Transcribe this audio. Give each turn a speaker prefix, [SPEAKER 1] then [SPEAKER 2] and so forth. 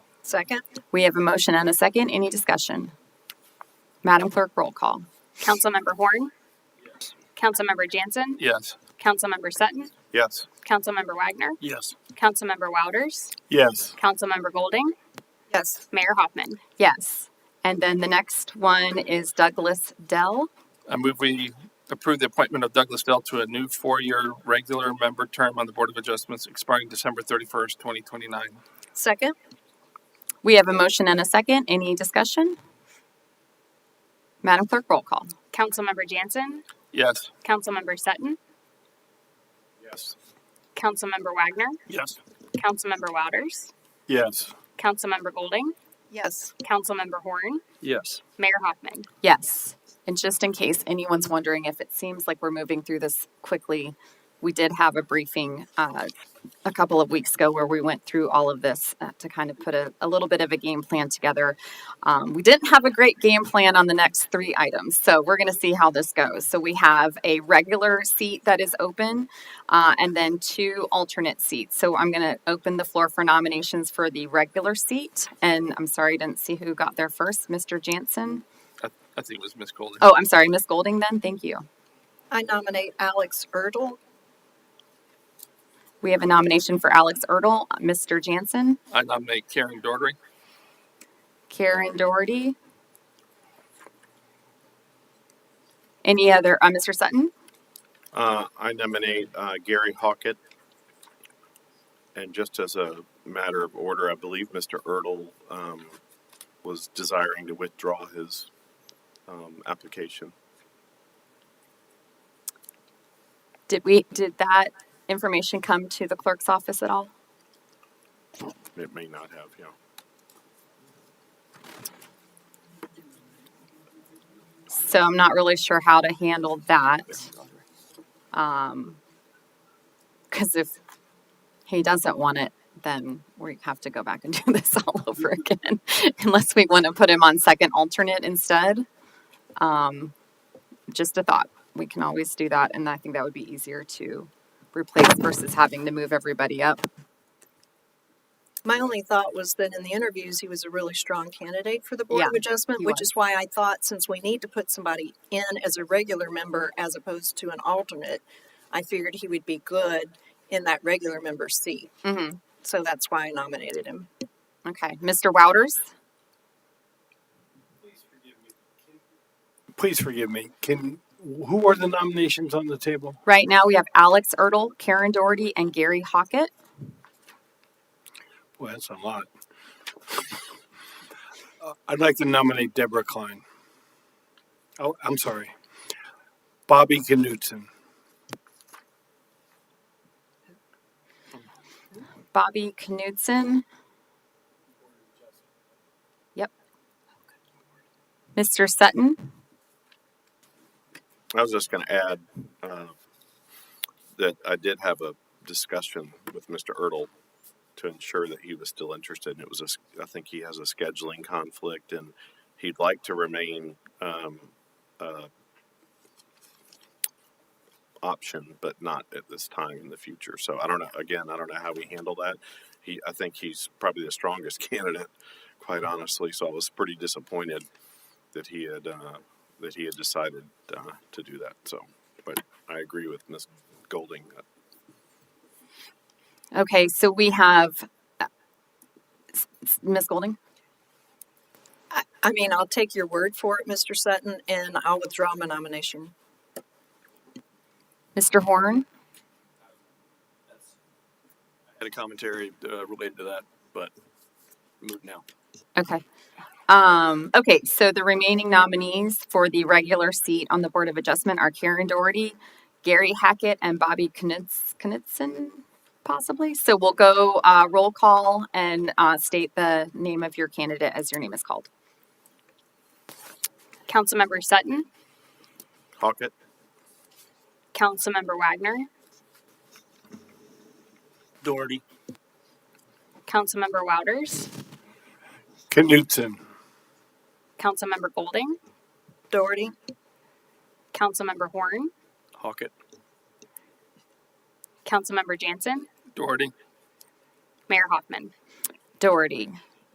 [SPEAKER 1] Second.
[SPEAKER 2] We have a motion and a second. Any discussion? Madam Clerk, roll call.
[SPEAKER 1] Councilmember Horn. Councilmember Jansen.
[SPEAKER 3] Yes.
[SPEAKER 1] Councilmember Sutton.
[SPEAKER 3] Yes.
[SPEAKER 1] Councilmember Wagner.
[SPEAKER 3] Yes.
[SPEAKER 1] Councilmember Wouters.
[SPEAKER 3] Yes.
[SPEAKER 1] Councilmember Golding.
[SPEAKER 4] Yes.
[SPEAKER 1] Mayor Hoffman.
[SPEAKER 2] Yes. And then the next one is Douglas Dell.
[SPEAKER 3] I move we approve the appointment of Douglas Dell to a new four-year regular member term on the Board of Adjustments expiring December thirty-first, twenty twenty-nine.
[SPEAKER 4] Second.
[SPEAKER 2] We have a motion and a second. Any discussion? Madam Clerk, roll call.
[SPEAKER 1] Councilmember Jansen.
[SPEAKER 3] Yes.
[SPEAKER 1] Councilmember Sutton.
[SPEAKER 3] Yes.
[SPEAKER 1] Councilmember Wagner.
[SPEAKER 3] Yes.
[SPEAKER 1] Councilmember Wouters.
[SPEAKER 3] Yes.
[SPEAKER 1] Councilmember Golding.
[SPEAKER 4] Yes.
[SPEAKER 1] Councilmember Horn.
[SPEAKER 3] Yes.
[SPEAKER 1] Mayor Hoffman.
[SPEAKER 2] Yes. And just in case anyone's wondering if it seems like we're moving through this quickly, we did have a briefing uh, a couple of weeks ago where we went through all of this uh, to kind of put a, a little bit of a game plan together. Um, we didn't have a great game plan on the next three items, so we're going to see how this goes. So we have a regular seat that is open uh, and then two alternate seats. So I'm going to open the floor for nominations for the regular seat. And I'm sorry, I didn't see who got there first. Mr. Jansen?
[SPEAKER 3] I, I think it was Ms. Golden.
[SPEAKER 2] Oh, I'm sorry, Miss Golding then, thank you.
[SPEAKER 4] I nominate Alex Erdl.
[SPEAKER 2] We have a nomination for Alex Erdl, Mr. Jansen,
[SPEAKER 3] I nominate Karen Doherty.
[SPEAKER 2] Karen Doherty. Any other, uh, Mr. Sutton?
[SPEAKER 5] Uh, I nominate uh, Gary Hawkett. And just as a matter of order, I believe Mr. Erdl um, was desiring to withdraw his um, application.
[SPEAKER 2] Did we, did that information come to the clerk's office at all?
[SPEAKER 5] It may not have, you know.
[SPEAKER 2] So I'm not really sure how to handle that. Um, cause if he doesn't want it, then we have to go back and do this all over again, unless we want to put him on second alternate instead. Um, just a thought. We can always do that, and I think that would be easier to replace versus having to move everybody up.
[SPEAKER 4] My only thought was that in the interviews, he was a really strong candidate for the Board
[SPEAKER 2] Yeah,
[SPEAKER 4] of Adjustment,
[SPEAKER 2] he
[SPEAKER 4] which
[SPEAKER 2] was.
[SPEAKER 4] is why I thought since we need to put somebody in as a regular member as opposed to an alternate, I figured he would be good in that regular member seat.
[SPEAKER 2] Mm-hmm.
[SPEAKER 4] So that's why I nominated him.
[SPEAKER 2] Okay, Mr. Wouters.
[SPEAKER 6] please forgive me. Can who are the nominations on the table?
[SPEAKER 2] Right now, we have Alex Ertl, Karen Doherty, and Gary Hockett.
[SPEAKER 6] Boy, that's a lot. Uh, I'd like to nominate Deborah Klein. Oh, I'm sorry. Bobby Knutson.
[SPEAKER 2] Bobby Knudsen. Yep. Mr. Sutton.
[SPEAKER 5] I was just going to add uh, that I did have a discussion with Mr. Erdl to ensure that he was still interested. And it was, a s I think he has a scheduling conflict and he'd like to remain um, uh, option, but not at this time in the future. So I don't know. Again, I don't know how we handle that. He, I think he's probably the strongest candidate, quite honestly. So I was pretty disappointed that he had uh, that he had decided uh, to do that. So, but I agree with Ms. Golding. uh,
[SPEAKER 2] Okay, so we have uh, s- s- Ms. Golding.
[SPEAKER 4] I, I mean, I'll take your word for it, Mr. Sutton, and I'll withdraw my nomination.
[SPEAKER 2] Mr. Horn.
[SPEAKER 7] had a commentary uh, related to that, but moot now.
[SPEAKER 2] Okay. Um, okay, so the remaining nominees for the regular seat on the Board of Adjustment are Karen Doherty, Gary Hackett, and Bobby Knudsen, Knudsen possibly. So we'll go uh, roll call and uh, state the name of your candidate as your name is called.
[SPEAKER 1] Councilmember Sutton.
[SPEAKER 5] Hawkett,
[SPEAKER 1] Councilmember Wagner.
[SPEAKER 3] Doherty.
[SPEAKER 1] Councilmember Wouters.
[SPEAKER 6] Knutson.
[SPEAKER 1] Councilmember Golding.
[SPEAKER 4] Doherty?
[SPEAKER 1] Councilmember Horn.
[SPEAKER 7] Hawkett,
[SPEAKER 1] Councilmember Jansen.
[SPEAKER 3] Doherty.
[SPEAKER 1] Mayor Hoffman.
[SPEAKER 2] Doherty.